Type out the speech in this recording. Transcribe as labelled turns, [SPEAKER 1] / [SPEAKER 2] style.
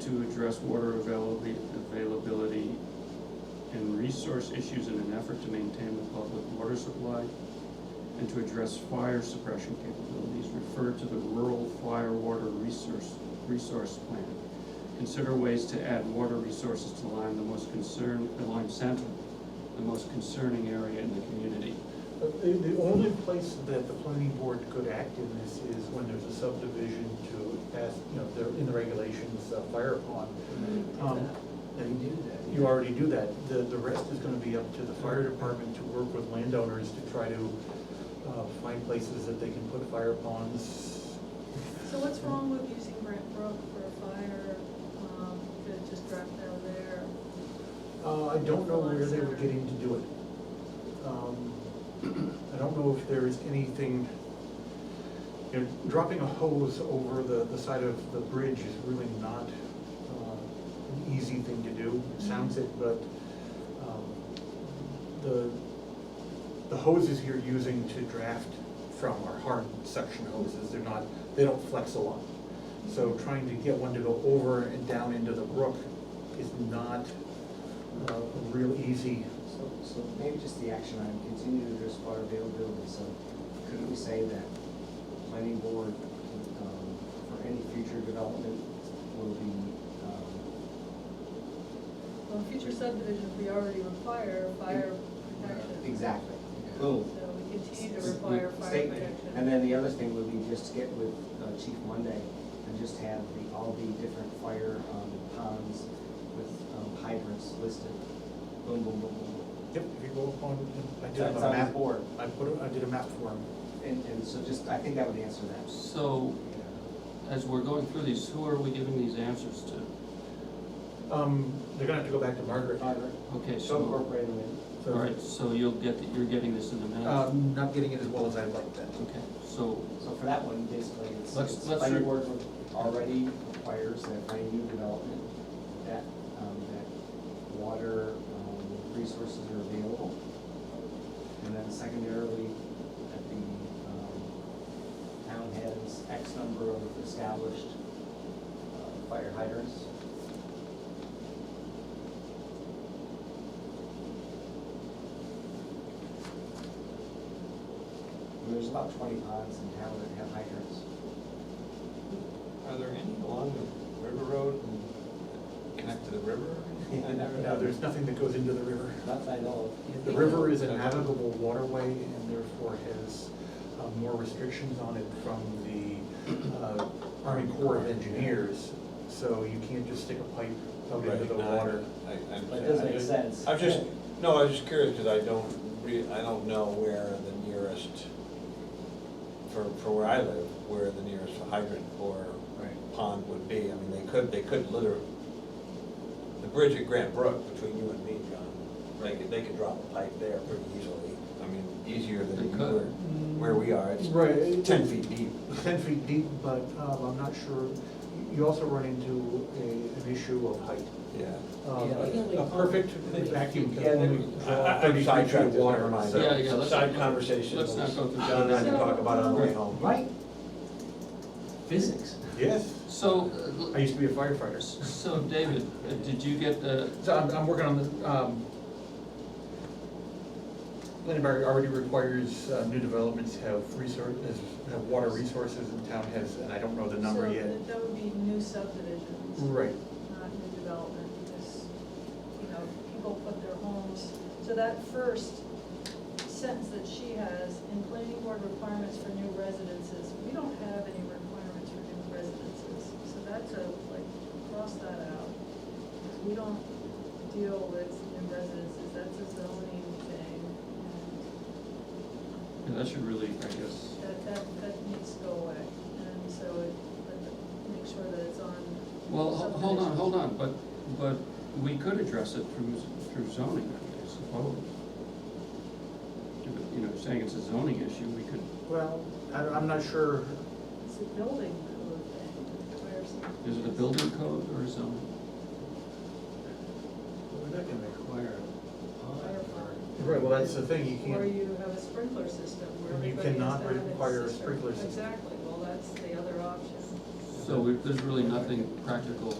[SPEAKER 1] to address water availably- availability and resource issues in an effort to maintain the public water supply and to address fire suppression capabilities, refer to the rural fire water resource, resource plan. Consider ways to add water resources to Lyme, the most concerned, the Lyme Center, the most concerning area in the community.
[SPEAKER 2] The, the only place that the planning board could act in this is when there's a subdivision to ask, you know, they're in the regulations, uh, fire pond. Um, And you- you already do that. The, the rest is gonna be up to the fire department to work with landowners to try to, uh, find places that they can put fire ponds.
[SPEAKER 3] So what's wrong with using Brent Brook for a fire, um, you could have just dropped down there?
[SPEAKER 2] Uh, I don't know where they were getting to do it. Um, I don't know if there is anything, you know, dropping a hose over the, the side of the bridge is really not, uh, an easy thing to do. It sounds it, but, um, the, the hoses you're using to draft from are hard suction hoses, they're not, they don't flex a lot. So trying to get one to go over and down into the brook is not uh, a real easy.
[SPEAKER 4] So, so maybe just the action item, continue to address water availability, so couldn't we say that planning board, um, for any future development will be, um,
[SPEAKER 3] Well, future subdivisions, we already require fire
[SPEAKER 4] Mm.
[SPEAKER 3] protection.
[SPEAKER 4] exactly,
[SPEAKER 5] Yeah.
[SPEAKER 3] So
[SPEAKER 4] boom.
[SPEAKER 3] we continue to
[SPEAKER 4] S-
[SPEAKER 3] require fire
[SPEAKER 4] Oh. statement.
[SPEAKER 3] protection.
[SPEAKER 4] And then the other thing would be just get with uh, Chief Monday and just have the, all the different fire um, ponds with um, hydrants listed, boom, boom, boom, boom.
[SPEAKER 2] Yep, if you go upon, I did
[SPEAKER 4] That's
[SPEAKER 2] a
[SPEAKER 4] on the
[SPEAKER 2] map,
[SPEAKER 4] board.
[SPEAKER 2] I put, I did a map for him.
[SPEAKER 4] And, and so just, I think that would answer that.
[SPEAKER 1] So, as we're going through these, who are we giving these answers to?
[SPEAKER 2] Um, they're gonna have to go back to Margaret.
[SPEAKER 4] Hydrant,
[SPEAKER 1] Okay,
[SPEAKER 4] so
[SPEAKER 1] so,
[SPEAKER 4] incorporate them in.
[SPEAKER 2] So,
[SPEAKER 1] all right, so you'll get, the- you're getting this in a minute.
[SPEAKER 2] Um, not getting it as well as I'd like that.
[SPEAKER 1] Okay, so
[SPEAKER 4] So for that one, basically, it's,
[SPEAKER 1] Let's-
[SPEAKER 4] it's
[SPEAKER 1] let's
[SPEAKER 4] planning
[SPEAKER 1] re-
[SPEAKER 4] board already requires that for any new development, that, um, that water, um, resources are available. And then secondarily, that the, um, town has X number of established, uh, fire hydrants. And There's about twenty ponds in town that have hydrants.
[SPEAKER 5] Are there any along the river road and connect to the river? I never
[SPEAKER 2] Now, there's nothing that goes into the river.
[SPEAKER 4] Not that I know
[SPEAKER 2] The river is a navigable waterway and therefore has uh, more restrictions on it from the uh, Army Corps of Engineers. So you can't just stick a pipe out into the
[SPEAKER 5] Right, no, I-
[SPEAKER 2] water.
[SPEAKER 5] I- I-
[SPEAKER 4] But it does
[SPEAKER 5] I
[SPEAKER 4] make
[SPEAKER 5] just-
[SPEAKER 4] sense.
[SPEAKER 5] I'm just, no, I was just curious, because I don't re, I don't know where the nearest, for, for where I live, where the nearest hydrant or
[SPEAKER 4] Right.
[SPEAKER 5] pond would be. I mean, they could, they could literally, the bridge at Grant Brook between you and me, John, they could, they could drop a pipe there pretty easily. I mean, easier
[SPEAKER 1] They
[SPEAKER 5] than you
[SPEAKER 1] could.
[SPEAKER 5] were, where we are, it's
[SPEAKER 2] Right.
[SPEAKER 5] ten feet deep.
[SPEAKER 2] ten feet deep, but um, I'm not sure, you also run into a, an issue of height.
[SPEAKER 5] Yeah.
[SPEAKER 2] Um,
[SPEAKER 4] Yeah,
[SPEAKER 2] A a perfect vacuum
[SPEAKER 5] Yeah,
[SPEAKER 2] can only draw
[SPEAKER 5] I'm
[SPEAKER 2] thirty feet
[SPEAKER 5] sidetracked,
[SPEAKER 2] of
[SPEAKER 5] this, never
[SPEAKER 2] water.
[SPEAKER 5] mind.
[SPEAKER 2] so-
[SPEAKER 1] Yeah, yeah, let's-
[SPEAKER 5] Side conversation.
[SPEAKER 1] let's not go through that.
[SPEAKER 5] John and I can talk about it on the way home.
[SPEAKER 4] Right? Physics.
[SPEAKER 2] Yes,
[SPEAKER 1] So,
[SPEAKER 2] I
[SPEAKER 1] uh,
[SPEAKER 2] used to be a firefighter.
[SPEAKER 1] so David, uh, did you get the,
[SPEAKER 2] So I'm, I'm working on the, um, Lindenberg already requires, uh, new developments have resource, have water resources and town has, and I don't know the number
[SPEAKER 3] So
[SPEAKER 2] yet.
[SPEAKER 3] that- that would be new subdivisions.
[SPEAKER 2] Right,
[SPEAKER 3] not new development, because, you know, people put their homes. So that first sentence that she has, in planning board requirements for new residences, we don't have any requirements for new residences. So that's a, like, cross that out, because we don't deal with new residences, that's a zoning thing.
[SPEAKER 1] yeah, that should really, I guess,
[SPEAKER 3] and That, that, that needs to go away, and so it, but make sure that it's on.
[SPEAKER 1] well, ho- hold on,
[SPEAKER 3] subdivisions.
[SPEAKER 1] hold on, but, but we could address it through, through zoning, I suppose. If, You know, saying it's a zoning issue, we could,
[SPEAKER 2] well, I, I'm not sure,
[SPEAKER 3] It's a building code thing, where some.
[SPEAKER 1] is it a building code or a zoning?
[SPEAKER 4] We're not gonna require a
[SPEAKER 3] Fire alarm.
[SPEAKER 2] right, well, that's the thing, you
[SPEAKER 3] Or
[SPEAKER 2] can't,
[SPEAKER 3] you have a sprinkler system where
[SPEAKER 2] You
[SPEAKER 3] everybody has to
[SPEAKER 2] cannot
[SPEAKER 3] have its
[SPEAKER 2] require a
[SPEAKER 3] system.
[SPEAKER 2] sprinkler system.
[SPEAKER 3] Exactly, well, that's the other option.
[SPEAKER 1] So we- there's really nothing practical